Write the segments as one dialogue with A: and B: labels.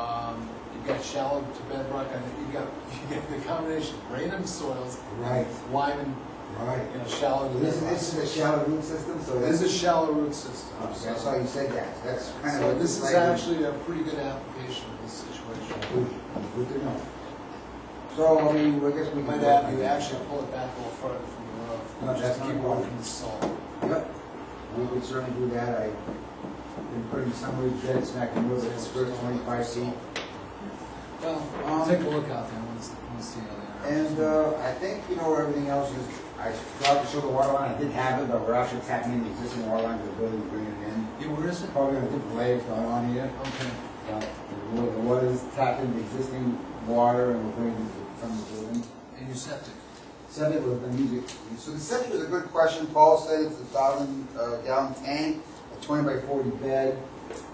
A: Um, got shallow to bedrock, and you got, you got the combination of random soils,
B: Right,
A: lime and,
B: right.
A: you know, shallow to
B: This,
A: bedrock.
B: this is a shallow root system, so
A: This
B: that's,
A: is shallow root system.
B: that's why you said that, that's kind
A: So
B: of.
A: this is
B: like-
A: actually a pretty good application of this situation.
B: Good good to know. So, I mean, I guess we
A: We
B: can.
A: might have you actually pull it back a little further from the roof.
B: No, that's
A: Just
B: not
A: keep
B: a problem.
A: working the salt.
B: Yep, we could certainly do that, I've been putting some roof beds back in with this first twenty-five feet.
A: Well,
B: Um,
A: take a look out there, let's, let's see how they are.
B: And, uh, I think, you know, everything else is, I forgot to show the water line, I did have it, but we're actually tapping in the existing water line to the building, bringing it in.
A: Yeah, where is it?
B: Probably a different layers going on here.
A: Okay.
B: Well, The wa- the water is tapped into existing water and we're bringing it from the building.
A: And your septic.
B: Septic was unusual. So the septic was a good question. Paul said it's a thousand uh, gallon tank, a twenty by forty bed.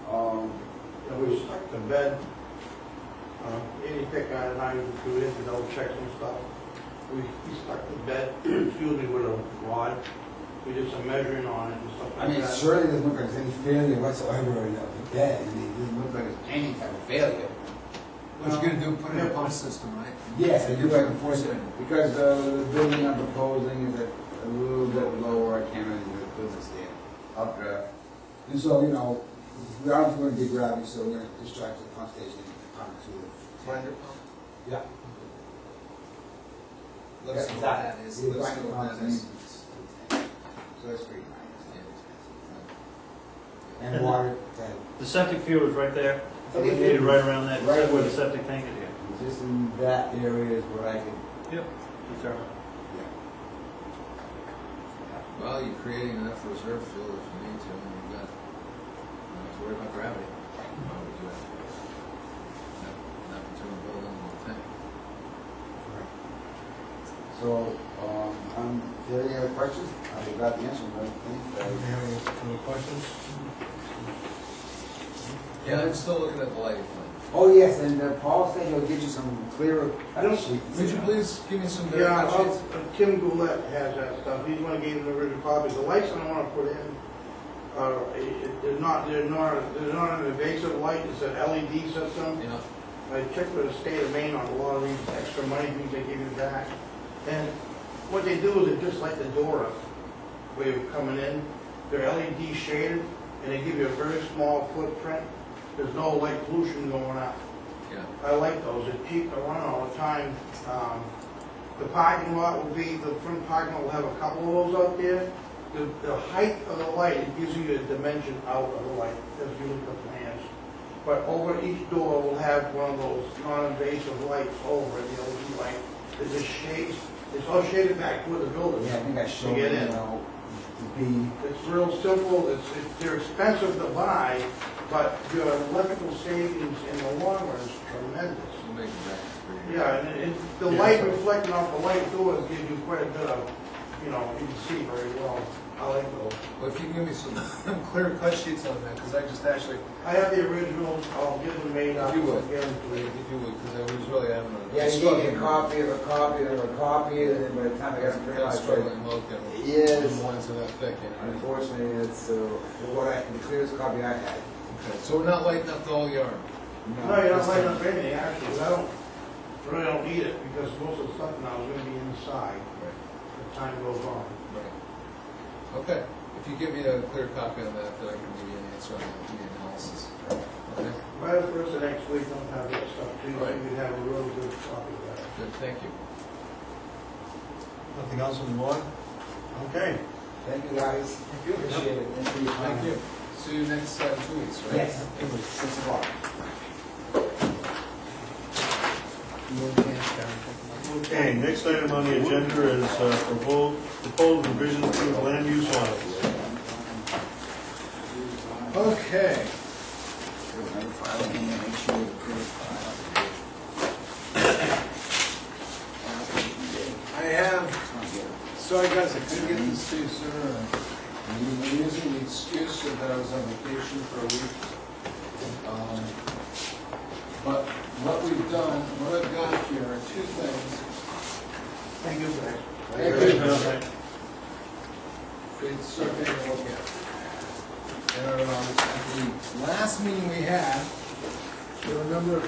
B: Um,
C: And we stuck the bed, uh, any thick iron, not even two inches, no checks and stuff. We, we stuck the bed, excuse me, with a rod, we did some measuring on it and stuff
B: I
C: like
B: mean,
C: that.
B: surely it doesn't look like there's any failure whatsoever in the bed. I mean, it doesn't look like there's any type of failure.
A: What you're gonna do, put in a pump system, right?
B: Yes, I do
A: You're
B: like enforcement, because uh, the building I'm proposing is a- a little bit lower, I can't really do the business there, updraft. And so, you know, we are going to be gravity, so we're going to distract the pump station and pump to
A: Grinder pump?
B: it. Yeah.
A: Let us know what that is,
B: Yeah,
A: let us know what
B: grinder
A: that is.
B: So that's pretty nice. And water, that,
D: The septic field is right there,
B: Septic field.
D: located right around that,
B: Right.
D: where the septic tank is here.
B: just in that area is where I can,
D: Yep. Determine.
B: yeah.
E: Well, you're creating enough reserve fuel if you need to, and you've got, you don't have to worry about gravity. Why would you have to? Not, not between a building and a tank.
B: So, um, um, if you have any other questions, I forgot the answer, but I think, uh,
C: Any questions?
E: Yeah, I'm still looking at the lighting plan.
B: Oh, yes, and uh, Paul said he'll get you some clearer cut sheets.
A: Would you please give me some better
C: Yeah, uh,
A: options?
C: Tim Goulet has that stuff, he's one gave the original copy, the lights I wanna put in, uh, it- it- they're not, they're not, they're not an invasive light, it's an LED system.
E: You know,
C: I checked with the state of Maine on a lot of these extra money things they give you back. And what they do is they just light the door up where you're coming in. They're LED shaded and they give you a very small footprint. There's no light pollution going out.
E: yeah,
C: I like those. It keep, I run all the time. Um, the parking lot will be, the front parking lot will have a couple of those out there. The, the height of the light, it gives you the dimension out of the light as you look at the plans. But over each door will have one of those non-invasive lights over the LED light. There's a shade, it's all shaded back toward the building.
B: Yeah, I think I showed you,
C: get in.
B: know, the B.
C: It's real simple, it's, it- they're expensive to buy, but your electrical savings in the long run is tremendous.
E: we'll make it back for you.
C: Yeah, and it, the light reflecting off the light doors gives you quite a bit of, you know, you can see very well. I like those.
A: Well, if you can give me some clear cut sheets on that, because I just actually,
C: I have the originals, I'll get them made up.
E: If you would.
C: Get them to
E: If
C: you.
E: you would, because I was really adamant.
B: Yeah, you gave me a copy of a copy of a copy, and then by the time I got to print
E: I'm
B: out,
E: struggling to look at them.
B: Yes.
E: Ones that are thick, you know.
B: unfortunately, it's, uh, what I, the clearest copy I had.
E: Okay, so we're not lighting up the whole yard.
C: No, you
B: uh,
C: don't light up anything, actually, I don't, really don't need it, because most of the stuff now is gonna be inside
E: Right.
C: as time goes on.
E: Right. Okay, if you give me a clear copy of that, then I can give you an answer on the the analysis. Okay?
C: By the first of next week, I'll have that stuff to you, so
E: Right.
C: you can have a real good copy of that.
E: Good, thank you.
A: Nothing else on the board?
C: Okay.
B: Thank you, guys. Appreciate it. Thanks for your time.
E: Thank you. See you next uh, two weeks, right?
B: Yes, it was six o'clock.
F: Okay, next item on the agenda is uh, propo- proposed revisions to the land use laws.
A: Okay. I have, sorry guys, I couldn't get this to you sooner. I'm using the excuse that I was on vacation for a week. Um, But what we've done, what I've got here are two things.
C: Thank you for that.
A: Great survey to look at. And, um, at the last meeting we had, there were a number of